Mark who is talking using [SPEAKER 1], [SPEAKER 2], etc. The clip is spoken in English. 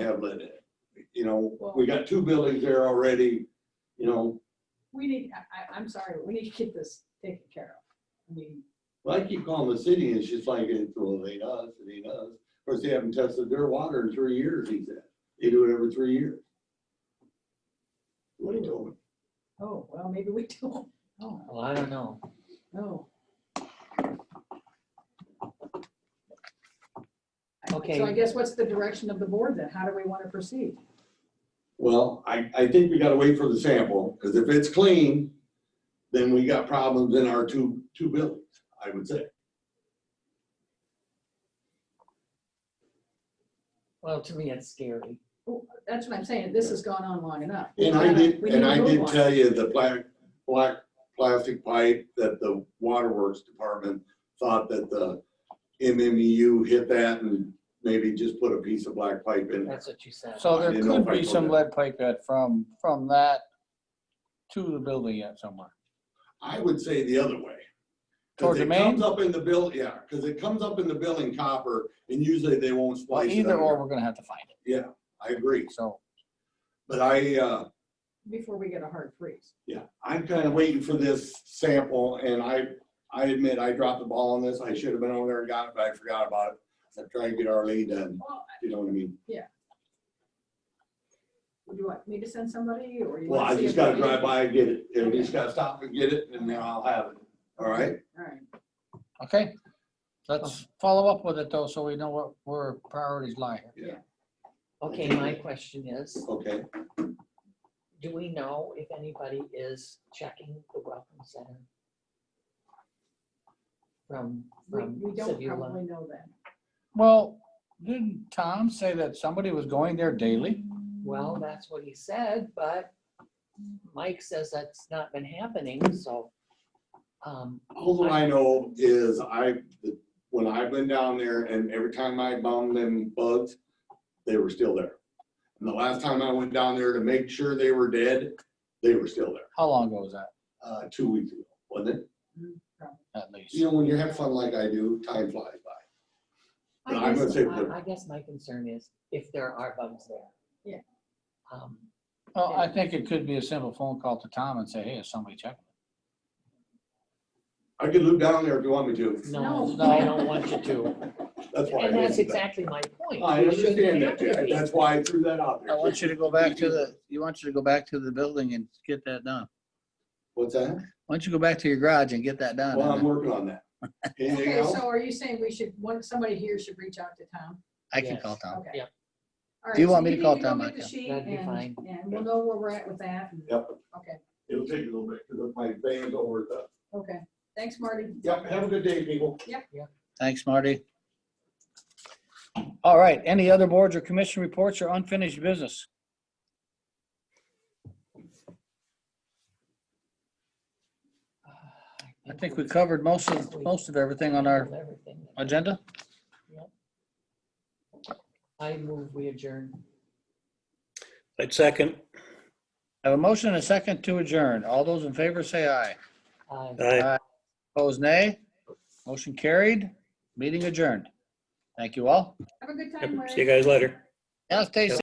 [SPEAKER 1] have lead in it. You know,
[SPEAKER 2] Well-
[SPEAKER 1] we got two buildings there already, you know,
[SPEAKER 2] We need, I, I, I'm sorry, but we need to get this taken care of. I mean,
[SPEAKER 1] well, I keep calling the city and it's just like, it's, well, it ain't us, it ain't us. Of course, they haven't tested their water in three years, he said. They do it every three years. What he told me.
[SPEAKER 2] oh, well, maybe we don't, oh,
[SPEAKER 3] Well, I don't know.
[SPEAKER 2] no.
[SPEAKER 3] Okay.
[SPEAKER 2] So I guess what's the direction of the board then? How do we want to proceed?
[SPEAKER 1] Well, I, I think we gotta wait for the sample, because if it's clean, then we got problems in our two, two buildings, I would say.
[SPEAKER 3] Well, to me, it's scary.
[SPEAKER 2] That's what I'm saying, this has gone on long enough. We
[SPEAKER 1] And I
[SPEAKER 2] gotta-
[SPEAKER 1] did,
[SPEAKER 2] we
[SPEAKER 1] and
[SPEAKER 2] need to
[SPEAKER 1] I
[SPEAKER 2] move
[SPEAKER 1] did
[SPEAKER 2] on.
[SPEAKER 1] tell you the black, black plastic pipe that the waterworks department thought that the MMU hit that and maybe just put a piece of black pipe in there.
[SPEAKER 3] That's what you said.
[SPEAKER 4] So
[SPEAKER 1] I
[SPEAKER 4] there
[SPEAKER 1] didn't know
[SPEAKER 4] could
[SPEAKER 1] if I
[SPEAKER 4] be
[SPEAKER 1] told
[SPEAKER 4] some
[SPEAKER 1] you.
[SPEAKER 4] lead pipe that from, from that to the building yet somewhere.
[SPEAKER 1] I would say the other way. 'Cause
[SPEAKER 4] Toward the
[SPEAKER 1] it
[SPEAKER 4] main?
[SPEAKER 1] Comes up in the bill, yeah, because it comes up in the billing copper and usually they won't
[SPEAKER 4] Well,
[SPEAKER 1] splice it
[SPEAKER 4] either or,
[SPEAKER 1] under.
[SPEAKER 4] we're gonna have to find it,
[SPEAKER 1] I agree,
[SPEAKER 4] so.
[SPEAKER 1] but I, uh,
[SPEAKER 2] Before we get a hard freeze.
[SPEAKER 1] Yeah, I'm kind of waiting for this sample and I, I admit I dropped the ball on this. I should have been over there and got it, but I forgot about it. I'm trying to get our lead done,
[SPEAKER 2] Well,
[SPEAKER 1] you know what I mean?
[SPEAKER 2] Do you want me to send somebody or you?
[SPEAKER 1] Well,
[SPEAKER 2] wanna
[SPEAKER 1] I
[SPEAKER 2] see
[SPEAKER 1] just
[SPEAKER 2] if
[SPEAKER 1] gotta
[SPEAKER 2] we-
[SPEAKER 1] drive by and get it. And
[SPEAKER 2] Okay.
[SPEAKER 1] just gotta stop and get it and then I'll have it. All right?
[SPEAKER 2] All right,
[SPEAKER 4] Okay, let's follow up with it though, so we know what, where priorities lie here.
[SPEAKER 3] Okay, my question is,
[SPEAKER 1] Okay.
[SPEAKER 3] do we know if anybody is checking the welcome center? From,
[SPEAKER 2] we,
[SPEAKER 3] from
[SPEAKER 2] we don't
[SPEAKER 3] Sevula?
[SPEAKER 2] probably know that.
[SPEAKER 4] Well, didn't Tom say that somebody was going there daily?
[SPEAKER 3] Well, that's what he said, but Mike says that's not been happening, so. um,
[SPEAKER 1] All that I know is I, when I've been down there and every time I bombed them bugs, they were still there. And the last time I went down there to make sure they were dead, they were still there,
[SPEAKER 4] How long ago was that,
[SPEAKER 1] uh, two weeks ago, wasn't it?
[SPEAKER 4] at least?
[SPEAKER 1] You know, when you have fun like I do, time flies by.
[SPEAKER 3] I
[SPEAKER 1] No, I'm
[SPEAKER 3] guess-
[SPEAKER 1] gonna say
[SPEAKER 3] I-
[SPEAKER 1] put-
[SPEAKER 3] I guess my concern is if there are bugs there.
[SPEAKER 2] Yeah.
[SPEAKER 3] Um,
[SPEAKER 4] Well, I think it could be a simple phone call to Tom and say, hey, is somebody checking?
[SPEAKER 1] I could loop down there if you want me to.
[SPEAKER 3] No,
[SPEAKER 2] No.
[SPEAKER 3] I don't want you to.
[SPEAKER 1] That's why. I
[SPEAKER 3] And that's
[SPEAKER 1] did that.
[SPEAKER 3] exactly my point.
[SPEAKER 1] I
[SPEAKER 3] We
[SPEAKER 1] understand
[SPEAKER 3] shouldn't
[SPEAKER 1] that.
[SPEAKER 3] have to
[SPEAKER 1] Jack.
[SPEAKER 3] be.
[SPEAKER 1] That's why I threw that out
[SPEAKER 3] Oh,
[SPEAKER 1] there.
[SPEAKER 4] you to go back to the, you want you to go back to the building and get that done.
[SPEAKER 1] What's that?
[SPEAKER 4] Why don't you go back to your garage and get that
[SPEAKER 1] Well, I'm working on that. Anything
[SPEAKER 2] Okay,
[SPEAKER 1] else?
[SPEAKER 2] so are you saying we should, one, somebody here should reach out to Tom?
[SPEAKER 4] I
[SPEAKER 3] can call
[SPEAKER 4] Tom.
[SPEAKER 2] Okay.
[SPEAKER 3] Yeah.
[SPEAKER 2] All
[SPEAKER 4] Do you
[SPEAKER 2] right, so
[SPEAKER 4] want me to
[SPEAKER 2] can-
[SPEAKER 4] call
[SPEAKER 2] you can
[SPEAKER 4] Tom
[SPEAKER 2] go
[SPEAKER 4] back
[SPEAKER 2] get the
[SPEAKER 4] up?
[SPEAKER 2] sheet
[SPEAKER 3] That'd be
[SPEAKER 2] and-
[SPEAKER 3] fine.
[SPEAKER 2] And we'll know where we're at with that. and-
[SPEAKER 1] Yep.
[SPEAKER 2] Okay,
[SPEAKER 1] It'll take a little bit because my veins over the.
[SPEAKER 2] okay. Thanks, Marty.
[SPEAKER 1] Yep, have a good day, people.
[SPEAKER 4] Thanks, Marty. All right, any other boards or commission reports or unfinished business? I think we covered most of, most of everything on our
[SPEAKER 3] Everything.
[SPEAKER 4] agenda.
[SPEAKER 3] I move we adjourn.
[SPEAKER 5] I'd second.
[SPEAKER 4] Have a motion and a second to adjourn. All those in favor say aye.
[SPEAKER 3] Aye.
[SPEAKER 5] Aye.
[SPEAKER 4] Opposed, nay. Motion carried, meeting adjourned. Thank you all.
[SPEAKER 2] Have a good time,
[SPEAKER 5] Yep.
[SPEAKER 2] Larry.
[SPEAKER 5] See you guys later.
[SPEAKER 4] Now stay safe.